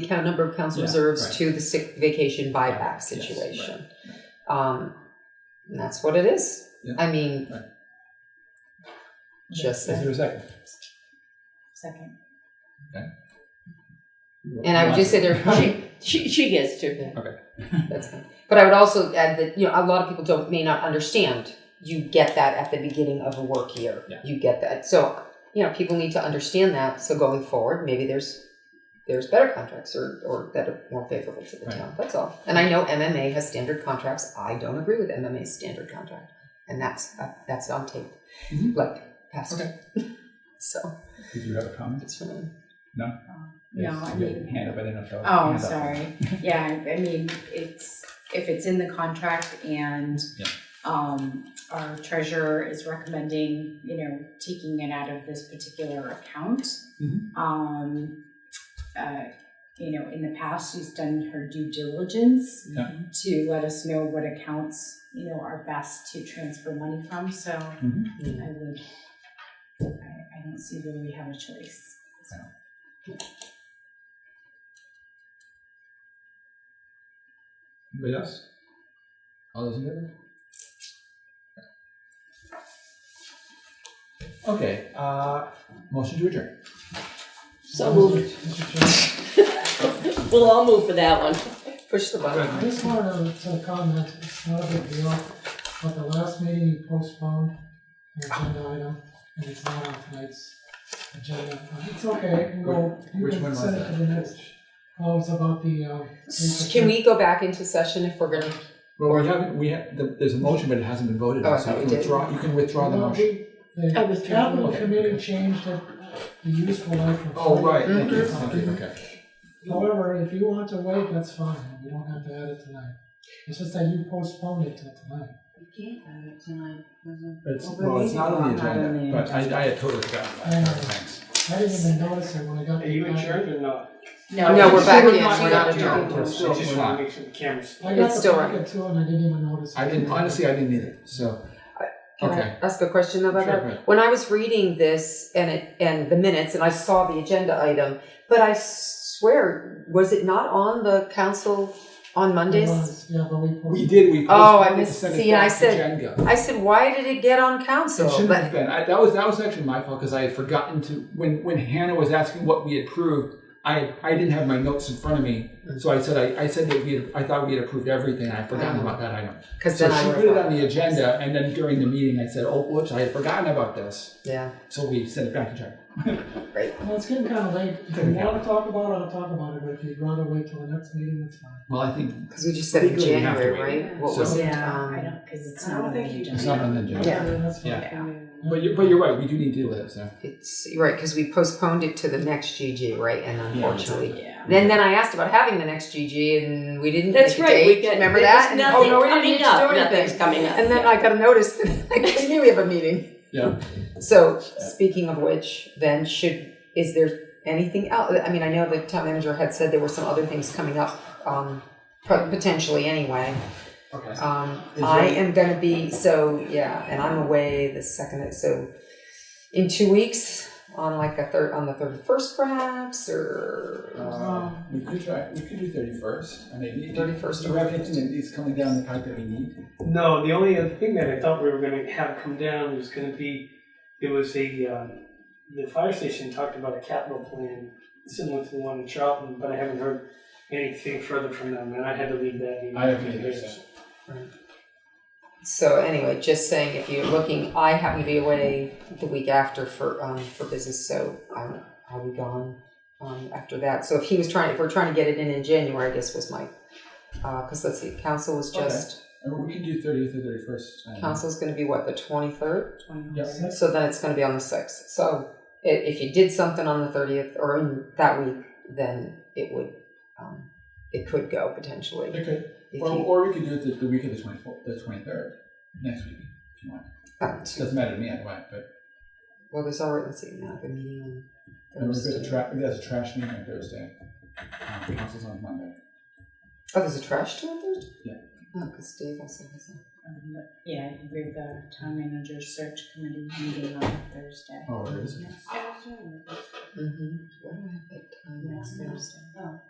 the count- number of council Yeah, reserves right. to the sick vacation buyback Yes, situation. Um, and that's what it is. Yeah. I mean, Right. just Is there a second? Second. And I would just say there, She, she, she gets to. that's fine. But I would also add that, you know, a lot of people don't, may not understand. You get that at the beginning of a work year. Yeah. You get that. So, you know, people need to understand that. So going forward, maybe there's, there's better contracts or, or that are more favorable to the Right. town. That's all. And I know MMA has standard contracts. I don't agree with MMA's standard contract. And that's, uh, that's on tape, Mhm. like past. Okay. So Did you have a comment? it's really. No, I You mean, Hand up, I didn't know. if that was- oh, hand up. sorry. Yeah, I I mean, it's, if it's in the contract and Yeah. um, our treasurer is recommending, you know, taking it out of this particular account. Mhm. Um, uh, you know, in the past, she's done her due diligence Yeah. to let us know what accounts, you know, are best to transfer money from, so Mm-hmm. I would, I, I don't see where we have a choice, so. Anybody else? All those in favor? Okay, uh, motion to adjourn. So moved. We'll all move for that one. Push the button. I just wanted to comment, it's not a big deal, but the last meeting you postponed an agenda item, and it's not on tonight's agenda. It's okay, it can go, you Which one can was send it to the next. that? Oh, it's about the, um. Can we go back into session if we're gonna, Well, we haven't, we have, the- there's a motion, but it hasn't been voted Oh, I on, so thought you we can did. withdraw, you can withdraw the motion. I Oh, The was capital Okay. committee changed it, the useful life of. Oh, right, thank you, Mhm. thank you, Mm-hmm. okay. However, if you want to wait, that's fine, we don't have to add it tonight. It's just that you postponed it till tonight. It's, Well, well, it's not on the it's not on the agenda, but I, I had totally forgotten Yeah. about that, thanks. I didn't even notice it when I got. Are you the packet. insured or not? No, we're back in. not- We're not adjourned. We're still- We're Just not. want to make sure the cameras. I got It's the still packet too, and I didn't even notice. I it. didn't, honestly, I didn't either, so, can I okay. ask a question about Sure, that? go ahead. When I was reading this and it, and the minutes and I saw the agenda item, but I swear, was it not on the council on It Mondays? was, Yeah, but we. posted We did, we. Oh, I postponed it to missed- send it see, and I back to said- Jen Gill. I said, why did it get on It council? shouldn't have But been. I, that was that was actually my fault because I had forgotten to when when Hannah was asking what we approved. I I didn't have my notes in front of me, so I said I, I said that we had, I thought we had approved everything. I forgotten Ah. about that item. because So then I she would put it on the agenda, and then during the meeting, I said, "Oh, whoops, I had forgotten about this." Yeah, So we sent it back to Jen. Well, it's getting kind of late. If you want to talk about it, I'll talk about it, but if you'd rather wait till the next meeting, that's fine. Well, I think because we just said in Legally, we have to January, wait. right? What So- was it? Yeah, I Um, don't, because it's I not don't on the think you agenda. it's not on the agenda. Yeah. Okay, That's fine. Yeah. But you but you're right. We do need to deal with it. So It's, you're right, because we postponed it to the next GG, right? And unfortunately, Yeah. then then I asked about having the next GG, and we didn't. That's pick a right, we date. got- remember there that. was And, oh no, we nothing didn't need to coming do up, anything. nothing's coming up. And then I got a notice. that I knew we have a meeting. Yeah. So speaking of which, then should is there anything else? I mean, I know the town manager had said there were some other things coming up, um, pro- potentially anyway. okay. Um, Is I there- am gonna be, so, yeah, and I'm away the second, so in two weeks, on like a third, on the thirty-first perhaps, or Uh, we could try. We could do thirty first. I mean, thirty first. Do you have anything that is coming down the pipe that we need? No, the only other thing that I thought we were going to have come down was going to be, there was a, um, the fire station talked about a capital plan similar to the one in Charlton, but I haven't heard anything further from them, and I had to leave that. meeting. I haven't either, so. So anyway, just saying, if you're looking, I happen to be away the week after for, um, for business, so I'm, I'll be gone, um, after that. So if he was trying, if we're trying to get it in in January, I guess was my, uh, cause let's see, council was Okay. just, I mean, we could do thirtieth or thirty first. council's gonna be what, the twenty-third? Yep. So then it's going to be on the sixth. So i- if you did something on the thirtieth or in that week, then it would, um, it could go potentially. If Okay. Well, you, or we could do it the, the week of the twenty fourth, the twenty third, next week, if you want. um, It doesn't matter to me either way, but well, there's already let's see now the meeting I on mean, we've got Thursday. the tra- that's a trash meeting on Thursday. Um, council's on Monday. oh, there's a trash to it Thursday. Yeah. Oh, because Dave also has a. Um, but, Yeah, we've got a town manager search committee meeting on Thursday. Oh, it is. Mm-hmm. Why do I have that time? Yeah, next yeah. Thursday? Oh.